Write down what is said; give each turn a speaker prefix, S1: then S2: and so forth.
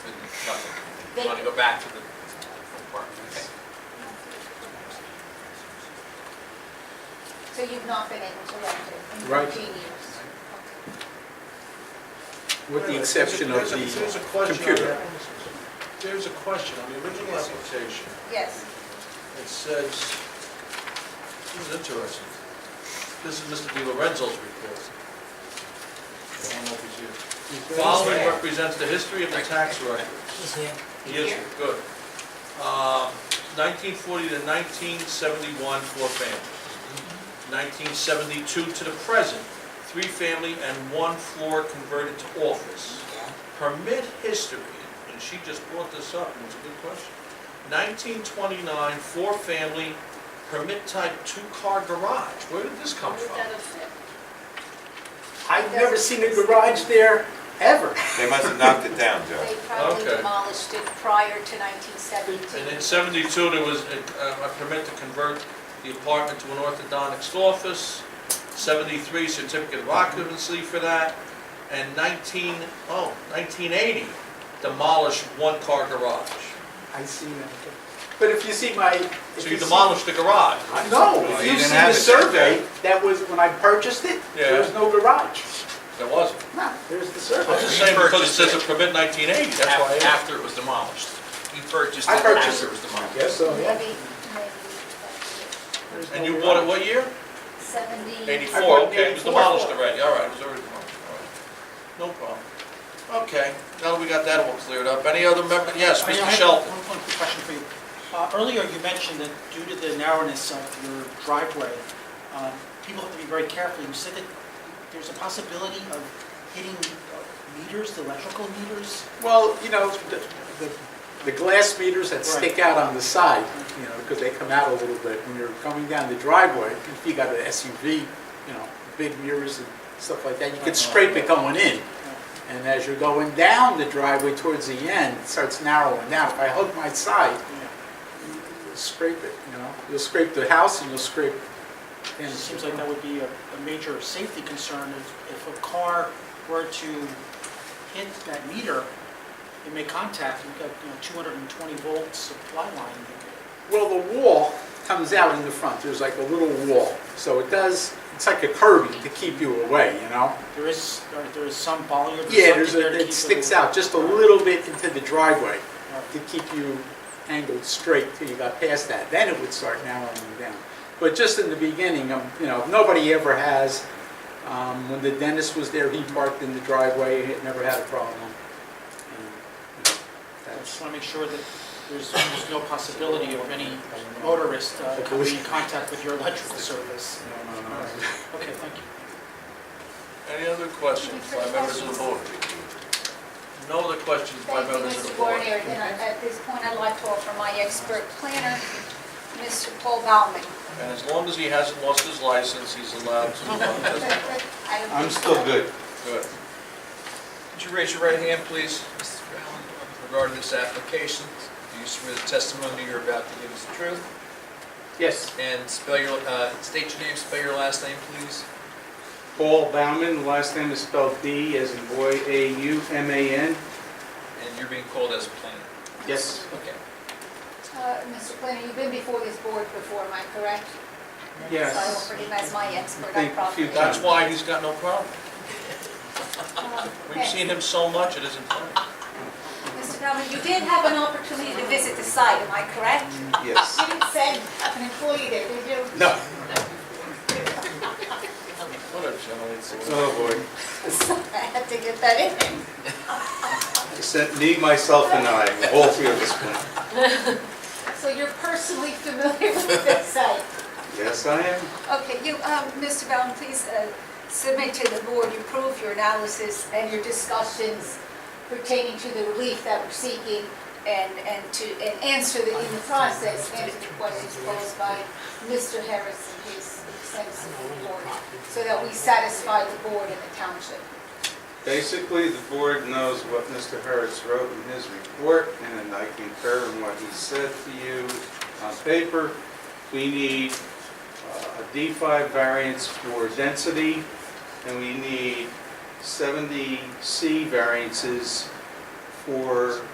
S1: You want to go back to the park? Okay.
S2: So you've not been able to rent it in
S3: Right.
S2: 15 years?
S3: with the exception of
S4: There's a- there's a
S3: the
S4: question on
S3: computer.
S4: that. There's a question on the original application.
S2: Yes.
S4: It says, this is interesting. This is Mr. Di Lorenzo's report. I don't know if he's here. Following represents the history of the tax records. He is, good. Um, 1940 to 1971, four families. 1972 to the present, three family and one floor converted to office. Permit history, and she just brought this up, and it's a good question. 1929, four family, permit type two-car garage. Where did this come from?
S3: I've never seen a garage there, ever.
S5: They must have knocked it down, Joe.
S2: They probably
S4: Okay.
S2: demolished it prior to
S4: And in
S2: 1972.
S4: 72, there was a a permit to convert the apartment to an orthodontics office, 73 certificate of occupancy for that, and 19, oh, 1980 demolished one-car garage.
S3: I see that. But if you see my. if
S4: So you
S3: see-
S4: demolished the garage.
S3: I- No,
S5: Well,
S3: if
S5: you
S3: you
S5: didn't
S3: see
S5: have
S3: the
S5: it there,
S3: survey, that was when I purchased it,
S4: Yeah.
S3: there was no garage.
S4: There wasn't.
S3: No, there's the
S4: I'm
S3: survey.
S4: just saying because it says a permit 1980, that's why I
S1: Af-
S4: asked.
S1: After it was demolished. You purchased it
S3: I
S1: after
S3: purchased
S1: it was demolished.
S3: Yes, so,
S2: Maybe,
S3: yeah.
S2: maybe that's
S3: there's no
S4: And you bought it
S3: garage.
S4: what year?
S2: it. 70.
S4: 84,
S3: I bought it in
S4: okay, it was
S3: 84.
S4: demolished already, all right, it was already demolished, all right. No problem. Okay, now that we got that all cleared up, any other member, yes,
S6: I- I
S4: Mr.
S6: have
S4: Shelton?
S6: One one quick question for you. Uh, Earlier, you mentioned that due to the narrowness of your driveway, um, people have to be very careful. You said that there's a possibility of hitting uh, meters, the electrical meters?
S3: Well, you know, the- the, the glass meters that stick out on the side, you know, because they come out a little bit when you're coming down the driveway, if you got an SUV, you know, big mirrors and stuff like that, you
S4: Uh-huh.
S3: could scrape it going in.
S6: Uh,
S3: And as you're going down the driveway towards the end, it starts narrowing down. If I hug my side, you'll scrape it, you know? You'll scrape the house and you'll scrape.
S6: It seems like that would be a a major safety concern. If if a car were to hit that meter, it may contact, you've got, you know, 220 volt supply line.
S3: Well, the wall comes out in the front. There's like a little wall. So it does, it's like a curbing to keep you away, you know?
S6: There is, there- there is some volume or
S3: Yeah, there's
S6: something there
S3: a,
S6: to keep
S3: it sticks
S6: away.
S3: out just a little bit into the driveway
S6: Right.
S3: to keep you angled straight till you got past that. Then it would start narrowing you down. But just in the beginning, um, you know, nobody ever has, um, when the dentist was there, he parked in the driveway, he never had a problem. And, you know,
S6: I
S3: that's-
S6: just want to make sure that there's, there's no possibility of any motorist uh, coming in contact with your electrical service.
S3: no, no, no.
S6: Okay, thank you.
S4: Any other questions by members of the board? No other questions by
S2: Thank you,
S4: members of the
S2: Mr.
S4: board?
S2: Guarnieri. Then I- at this point, I'd like to offer my expert planner, Mr. Paul Baumann.
S4: And as long as he hasn't lost his license, he's allowed to uh, testify.
S2: I
S5: I'm still good.
S4: Good.
S1: Would you raise your right hand, please, Mr. Allen, regarding this application? Do you swear the testimony you're about to give is the truth?
S3: Yes,
S1: And spell your, uh, state your name, spell your last name, please.
S7: Paul Bauman, last name is spelled D as in boy, A-U-M-A-N.
S1: And you're being called as a planner.
S3: yes,
S1: Okay.
S2: Uh, Mr. Planner, you've been before this board before, am I correct? So I
S7: Yes.
S2: offered him as my expert
S7: Thank
S2: on
S7: you.
S2: property.
S4: That's why he's got no problem.
S2: Um,
S4: We've
S2: okay.
S4: seen him so much, it isn't funny.
S2: Mr. Baumann, you did have an opportunity to visit the site, am I correct?
S7: Yes.
S2: You didn't send an employee there, did you?
S3: no,
S4: What a gentleman.
S7: Oh, boy.
S2: I had to get that in.
S7: Except me, myself, and I, all three of us went.
S2: So you're personally familiar with this site.
S7: Yes, I am.
S2: Okay, you, um, Mr. Bowden, please uh, submit to the board, you prove your analysis and your discussions pertaining to the relief that we're seeking and, and to, and answer the, in the process, answer the questions posed by Mr. Harris in his extensive report, so that we satisfy the board and the township.
S7: Basically, the board knows what Mr. Harris wrote in his report, and I concur in what he said to you on paper. We need uh, a D5 variance for density, and we need 70C variances for